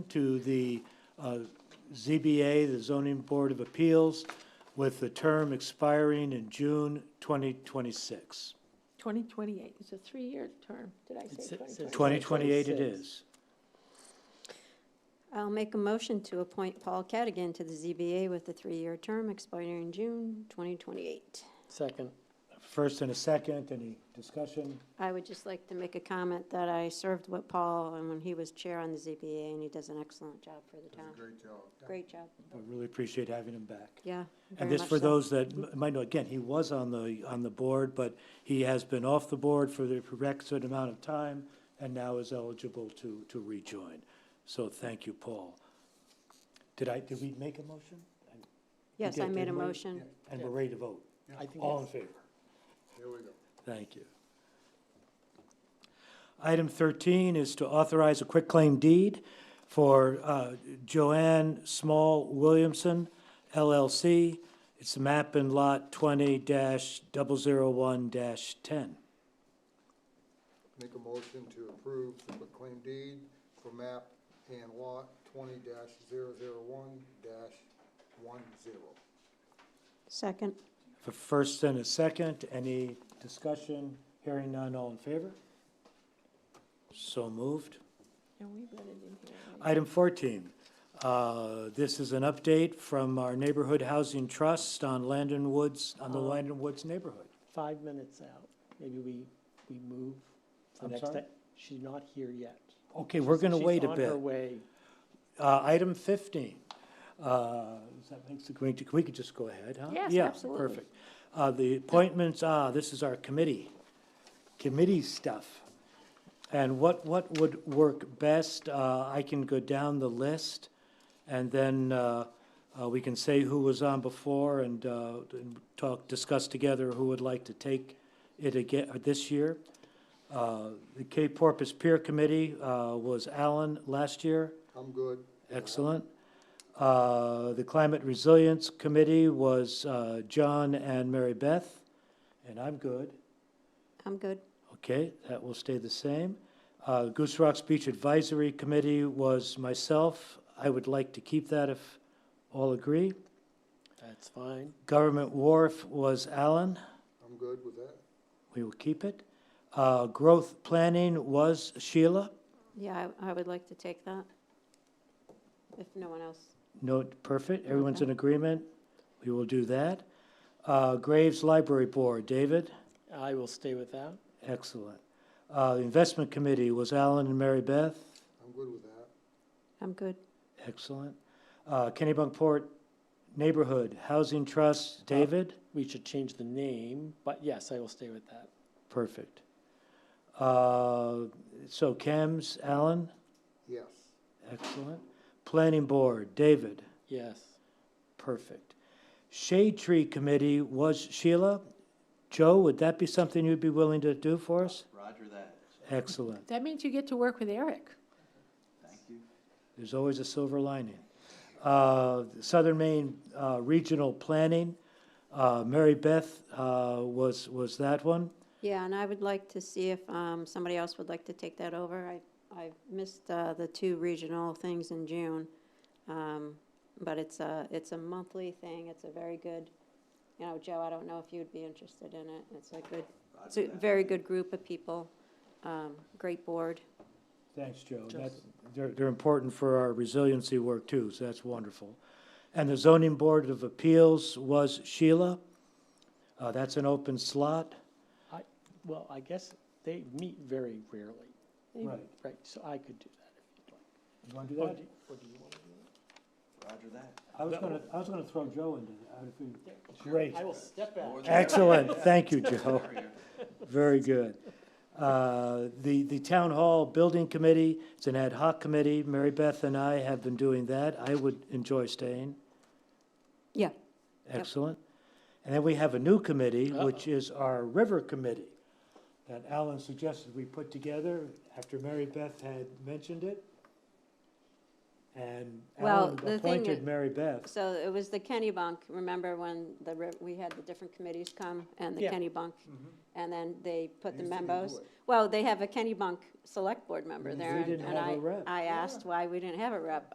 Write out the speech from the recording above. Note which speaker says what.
Speaker 1: to the uh, ZBA, the Zoning Board of Appeals, with the term expiring in June 2026.
Speaker 2: 2028, it's a three-year term, did I
Speaker 3: It's-
Speaker 2: say
Speaker 3: it's-
Speaker 2: 2028?
Speaker 1: 2028 it
Speaker 3: 2026.
Speaker 1: is.
Speaker 4: I'll make a motion to appoint Paul Cadigan to the ZBA with a three-year term expiring in June 2028.
Speaker 3: Second,
Speaker 1: First and a second, any discussion?
Speaker 4: I would just like to make a comment that I served with Paul and when he was chair on the ZBA, and he does an excellent job for the town.
Speaker 5: Great job.
Speaker 4: Great job,
Speaker 1: I really appreciate having him back.
Speaker 4: yeah. very
Speaker 1: And this
Speaker 4: much
Speaker 1: for
Speaker 4: so.
Speaker 1: those that m- might know, again, he was on the, on the board, but he has been off the board for the requisite amount of time and now is eligible to, to rejoin. So thank you, Paul. Did I, did we make a motion?
Speaker 4: Yes,
Speaker 1: did,
Speaker 4: I made a
Speaker 1: didn't we?
Speaker 4: motion.
Speaker 1: And we're ready to vote.
Speaker 3: I think
Speaker 1: All in
Speaker 3: it's-
Speaker 1: favor?
Speaker 5: Here we go.
Speaker 1: Thank you. Item 13 is to authorize a quitclaim deed for uh, Joanne Small Williamson LLC. It's map and lot 20-001-10.
Speaker 5: Make a motion to approve the claim deed for map and lot twenty dash zero zero one dash one zero.
Speaker 4: Second,
Speaker 1: For first and a second, any discussion? Hearing none, all in favor? So moved.
Speaker 2: No, we read it in here. right?
Speaker 1: Item 14, uh, this is an update from our Neighborhood Housing Trust on Landon Woods, on the
Speaker 3: Um,
Speaker 1: Landon Woods neighborhood.
Speaker 3: five minutes out, maybe we, we move the
Speaker 1: I'm
Speaker 3: next
Speaker 1: sorry?
Speaker 3: time. She's not here yet.
Speaker 1: Okay, we're going to
Speaker 3: She's
Speaker 1: wait a
Speaker 3: on
Speaker 1: bit.
Speaker 3: her way.
Speaker 1: Uh, Item 15, uh, does that makes the, green- we could just go ahead, huh?
Speaker 2: Yes, absolutely.
Speaker 1: Yeah, perfect. Uh, The appointments, ah, this is our committee, committee stuff. And what, what would work best? Uh, I can go down the list, and then uh, uh, we can say who was on before and uh, and talk, discuss together who would like to take it again this year. Uh, The Cape Porpoise Peer Committee uh, was Alan last year.
Speaker 5: I'm good.
Speaker 1: Excellent. Uh, The Climate Resilience Committee was uh, John and Mary Beth, and I'm good.
Speaker 4: I'm good.
Speaker 1: Okay, that will stay the same. Uh, Goose Rock's Beach Advisory Committee was myself. I would like to keep that if all agree.
Speaker 3: That's fine.
Speaker 1: Government Wharf was Alan.
Speaker 5: I'm good with that.
Speaker 1: We will keep it. Uh, Growth Planning was Sheila.
Speaker 4: Yeah, I, I would like to take that. If no one else,
Speaker 1: Note, perfect. Everyone's
Speaker 4: Okay.
Speaker 1: in agreement. We will do that. Uh, Graves Library Board, David?
Speaker 3: I will stay with that.
Speaker 1: Excellent. Uh, the investment committee was Alan and Mary Beth.
Speaker 5: I'm good with that.
Speaker 4: I'm good.
Speaker 1: Excellent. Uh, Kennebunkport Neighborhood Housing
Speaker 6: Uh.
Speaker 1: Trust, David.
Speaker 3: We should change the name, but yes, I will stay with that.
Speaker 1: Perfect. Uh, so Kems, Alan.
Speaker 5: Yes.
Speaker 1: Excellent. Planning board, David.
Speaker 3: Yes.
Speaker 1: Perfect. Shade Tree Committee was Sheila. Joe, would that be something you'd be willing to do for us?
Speaker 6: Roger that.
Speaker 1: Excellent.
Speaker 2: That means you get to work with Eric.
Speaker 6: Thank you.
Speaker 1: There's always a silver lining. Uh, Southern Maine uh, Regional Planning, uh, Mary Beth uh, was, was that one.
Speaker 4: Yeah, and I would like to see if um, somebody else would like to take that over. I, I missed uh, the two regional things in June. Um, But it's a, it's a monthly thing. It's a very good, you know, Joe, I don't know if you'd be interested in it. It's a good, it's a
Speaker 6: Roger that.
Speaker 4: very good group of people. Um, Great board.
Speaker 1: Thanks, Joe.
Speaker 3: Joe.
Speaker 1: That's, they're, they're important for our resiliency work too, so that's wonderful. And the Zoning Board of Appeals was Sheila. Uh, That's an open slot.
Speaker 3: Well, I guess they meet very rarely,
Speaker 2: They-
Speaker 3: right? Oh, So I could do that
Speaker 1: You want to do
Speaker 3: if you'd like. Or
Speaker 1: that?
Speaker 3: do- Or do you want to do it?
Speaker 6: Roger that.
Speaker 1: I was
Speaker 3: that-
Speaker 1: gonna, I was gonna throw Joe into that. Great.
Speaker 3: I will step out.
Speaker 6: More than-
Speaker 1: Excellent. Thank you, Joe.
Speaker 6: Barrier.
Speaker 1: Very good. Uh, The, the Town Hall Building Committee, it's an ad hoc committee. Mary Beth and I have been doing that. I would enjoy staying.
Speaker 4: Yeah.
Speaker 1: Excellent. And then we have a new committee, which is our River Committee, that Alan suggested we put together after Mary Beth had mentioned it. and
Speaker 4: Well,
Speaker 1: Alan
Speaker 4: the thing
Speaker 1: appointed
Speaker 4: that-
Speaker 1: Mary Beth.
Speaker 4: So it was the Kenny Bunk, remember when the, re- we had the different committees come and the
Speaker 3: Yeah.
Speaker 4: Kenny Bunk? And then they put the
Speaker 5: Used to do
Speaker 4: members,
Speaker 5: it.
Speaker 4: well, they have a Kenny Bunk Select Board member
Speaker 1: We
Speaker 4: there. and-
Speaker 1: didn't
Speaker 4: and
Speaker 1: have a
Speaker 4: I-
Speaker 1: rep.
Speaker 4: I asked why we didn't have a rep.